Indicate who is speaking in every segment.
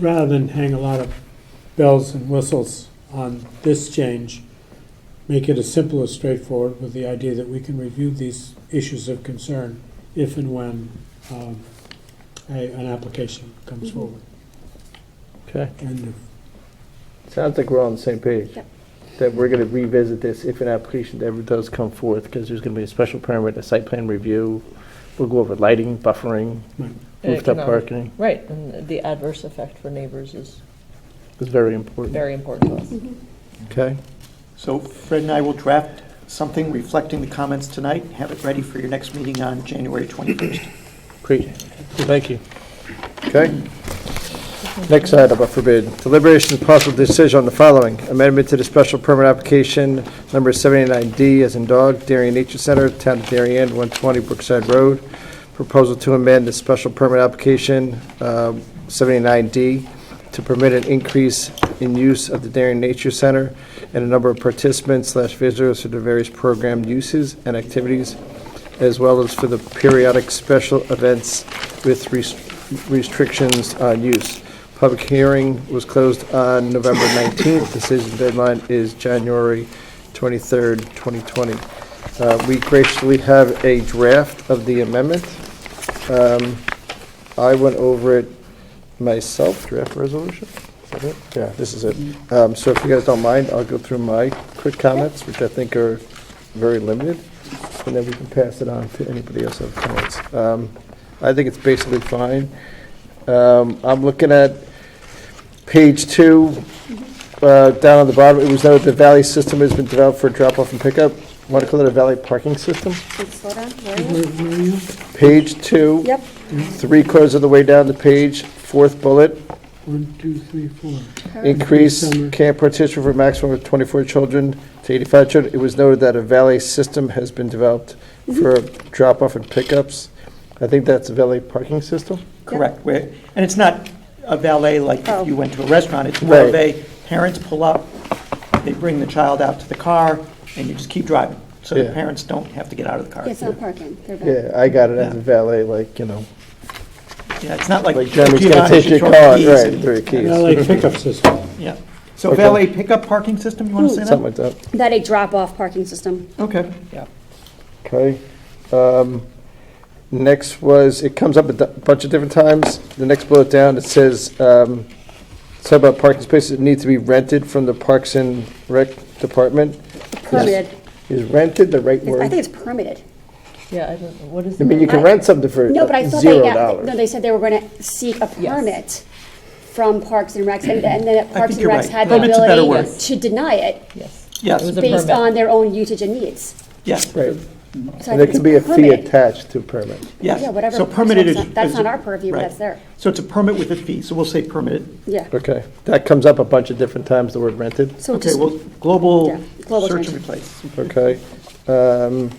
Speaker 1: rather than hang a lot of bells and whistles on this change, make it as simple as straightforward with the idea that we can review these issues of concern if and when um, a- an application comes forward.
Speaker 2: Okay,
Speaker 1: End of
Speaker 2: sounds like we're all on the same page.
Speaker 3: Yep.
Speaker 2: That we're going to revisit this if an application ever does come forth, because there's going to be a special permit, a site plan review. We'll go over lighting, buffering,
Speaker 1: Right.
Speaker 4: And
Speaker 2: rooftop
Speaker 4: economic-
Speaker 2: parking.
Speaker 4: Uh, Right, and the adverse effect for neighbors is
Speaker 2: It's very important.
Speaker 4: very important to us.
Speaker 2: Okay,
Speaker 5: So Fred and I will draft something reflecting the comments tonight, have it ready for your next meeting on January 21st.
Speaker 2: great. Thank you. Okay. Next item, I forbid, deliberation of possible decision on the following. Amendment to the special permit application number 79D as in dog, Darien Nature Center, Town of Darien, 120 Brookside Road. Proposal to amend the special permit application uh, 79D to permit an increase in use of the Darien Nature Center and a number of participants slash visitors for the various program uses and activities, as well as for the periodic special events with rest- restrictions on use. Public hearing was closed on November 19th. Decision deadline is January 23rd, 2020. Uh, We graciously have a draft of the amendment. Um, I went over it myself, draft resolution. Is that it? Yeah, this is it. Um, So if you guys don't mind, I'll go through my quick comments, which I think are very limited, and then we can pass it on to anybody else who has comments. Um, I think it's basically fine. Um, I'm looking at page two, uh, down on the bottom, it was noted the valley system has been developed for drop-off and pickup. Want to call it a valley parking system?
Speaker 3: Wait, slow down, where are
Speaker 1: Where
Speaker 3: you?
Speaker 1: where are you?
Speaker 2: Page two.
Speaker 3: Yep,
Speaker 2: Three quarters of the way down the page, fourth bullet,
Speaker 1: One, two, three, four.
Speaker 2: increase
Speaker 1: Summer.
Speaker 2: camp participation for maximum of 24 children to 85 children. It was noted that a valet system has been developed for drop-off and pickups. I think that's a valet parking system?
Speaker 5: Correct. Where- And it's not a valet like
Speaker 3: Oh.
Speaker 5: if you went to a restaurant, it's more of
Speaker 2: Right.
Speaker 5: a, parents pull up, they bring the child out to the car, and you just keep driving, so the
Speaker 2: Yeah.
Speaker 5: parents don't have to get out of the car.
Speaker 3: it's not parking, they're back.
Speaker 2: Yeah, I got it as a valet, like, you know,
Speaker 5: Yeah, it's not like.
Speaker 2: like Jeremy's gonna
Speaker 5: Giovanni,
Speaker 2: take your
Speaker 5: she throws
Speaker 2: car,
Speaker 5: keys
Speaker 2: right,
Speaker 5: and-
Speaker 2: throw your keys.
Speaker 1: LA pickup system.
Speaker 5: Yeah. So
Speaker 2: Okay.
Speaker 5: valet pickup parking system, you want to say that?
Speaker 2: Something like that.
Speaker 3: That a drop-off parking system.
Speaker 5: Okay, yeah.
Speaker 2: Okay. Um, Next was, it comes up a d- bunch of different times. The next bullet down, it says, um, it's about parking spaces that need to be rented from the Parks and Rec Department.
Speaker 3: Permitted,
Speaker 2: Is rented the right
Speaker 3: I
Speaker 2: word?
Speaker 3: think it's permitted.
Speaker 4: Yeah, I don't, what is
Speaker 2: I mean, you
Speaker 4: the,
Speaker 2: can rent something for
Speaker 3: No, but I thought they,
Speaker 2: zero
Speaker 3: got- no,
Speaker 2: dollars.
Speaker 3: they said they were going to seek a
Speaker 4: Yes.
Speaker 3: permit from Parks and Recs, and and then Parks and
Speaker 5: you're
Speaker 3: Recs
Speaker 5: right.
Speaker 3: had the
Speaker 5: Permit's a better
Speaker 3: ability
Speaker 4: word.
Speaker 3: to deny it
Speaker 4: yes.
Speaker 5: Yes.
Speaker 4: It was a
Speaker 3: based
Speaker 4: permit.
Speaker 3: on their own usage and needs.
Speaker 5: Yes,
Speaker 2: Right,
Speaker 3: So I
Speaker 2: and there
Speaker 3: think
Speaker 2: can be a
Speaker 3: it's
Speaker 2: fee
Speaker 3: permitted.
Speaker 2: attached to a permit.
Speaker 5: yes.
Speaker 3: Yeah, whatever.
Speaker 5: So
Speaker 3: So
Speaker 5: permitted
Speaker 3: that's
Speaker 5: is.
Speaker 3: not- that's
Speaker 5: is-
Speaker 3: not our purview, but
Speaker 5: right.
Speaker 3: that's there.
Speaker 5: So it's a permit with a fee, so we'll say permitted.
Speaker 3: Yeah,
Speaker 2: Okay, that comes up a bunch of different times, the word rented,
Speaker 3: so
Speaker 5: Okay,
Speaker 3: just,
Speaker 5: well, global
Speaker 3: Yeah, global
Speaker 5: search
Speaker 3: change.
Speaker 5: and replace.
Speaker 2: okay? Um,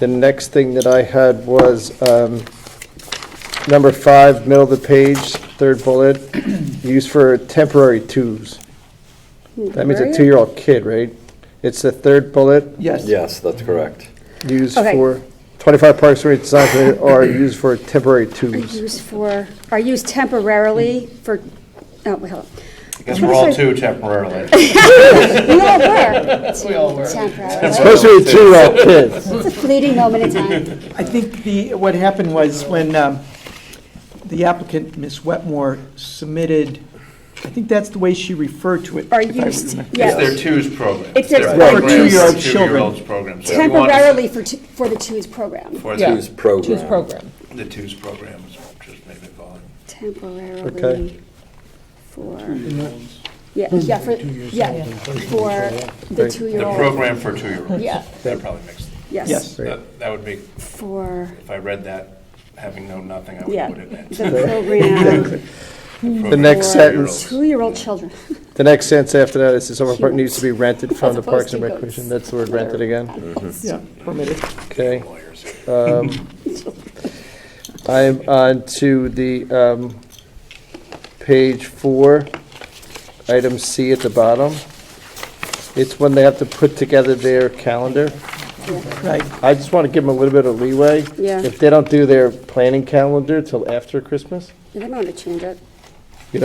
Speaker 2: The next thing that I had was um, number five, middle of the page, third bullet, used for temporary twos.
Speaker 3: hmm,
Speaker 2: That means a
Speaker 3: Temporary?
Speaker 2: two-year-old kid, right? It's the third bullet,
Speaker 5: Yes.
Speaker 6: Yes, that's correct.
Speaker 2: used
Speaker 3: Okay.
Speaker 2: for, 25 parks and redesign are used for temporary twos.
Speaker 3: used for, are used temporarily for, oh, wait, hold on.
Speaker 6: Because we're all two temporarily.
Speaker 3: We all were. We all were. Temporarily.
Speaker 2: Supposed to be two-year-old kids.
Speaker 3: It's a fleeting moment in time.
Speaker 5: I think the, what happened was when um, the applicant, Ms. Wetmore, submitted, I think that's the way she referred to it.
Speaker 3: Are
Speaker 5: if I
Speaker 3: used,
Speaker 5: remember.
Speaker 6: It's their
Speaker 3: yes.
Speaker 6: twos program.
Speaker 3: It's their-
Speaker 6: program
Speaker 3: For
Speaker 6: for
Speaker 5: two-year-old
Speaker 6: Two-year-olds program. So if you want to-
Speaker 3: Temporarily for, t- for the twos program.
Speaker 6: For
Speaker 4: Yeah.
Speaker 6: the
Speaker 7: Choose program.
Speaker 4: Choose program.
Speaker 6: the twos program is just maybe
Speaker 2: Okay.
Speaker 6: calling.
Speaker 3: Temporarily for, yeah, yeah, for, yeah, for the
Speaker 6: The
Speaker 3: two-year-old.
Speaker 6: program for two-year-olds.
Speaker 4: Yeah.
Speaker 6: That probably makes,
Speaker 3: Yes,
Speaker 5: Yes.
Speaker 6: that that would be,
Speaker 3: for,
Speaker 6: if I read that, having known nothing, I
Speaker 3: yeah,
Speaker 6: would put it in.
Speaker 3: the program
Speaker 6: The
Speaker 2: next
Speaker 3: for
Speaker 2: sentence.
Speaker 3: two-year-old children.
Speaker 2: The next sentence after that is the summer park needs to be rented from
Speaker 3: As
Speaker 2: the
Speaker 3: opposed
Speaker 2: Parks and
Speaker 3: to
Speaker 2: Recreation.
Speaker 3: goats.
Speaker 2: That's the word rented again,
Speaker 6: Mm-hmm.
Speaker 5: Yeah, permitted.
Speaker 2: okay? Um, I'm on to the, um, page four, item C at the bottom. It's when they have to put together their calendar.
Speaker 5: Right,
Speaker 2: I just want to give them a little bit of leeway.
Speaker 3: Yeah.
Speaker 2: If they don't do their planning calendar till after Christmas,
Speaker 3: They might want to change it.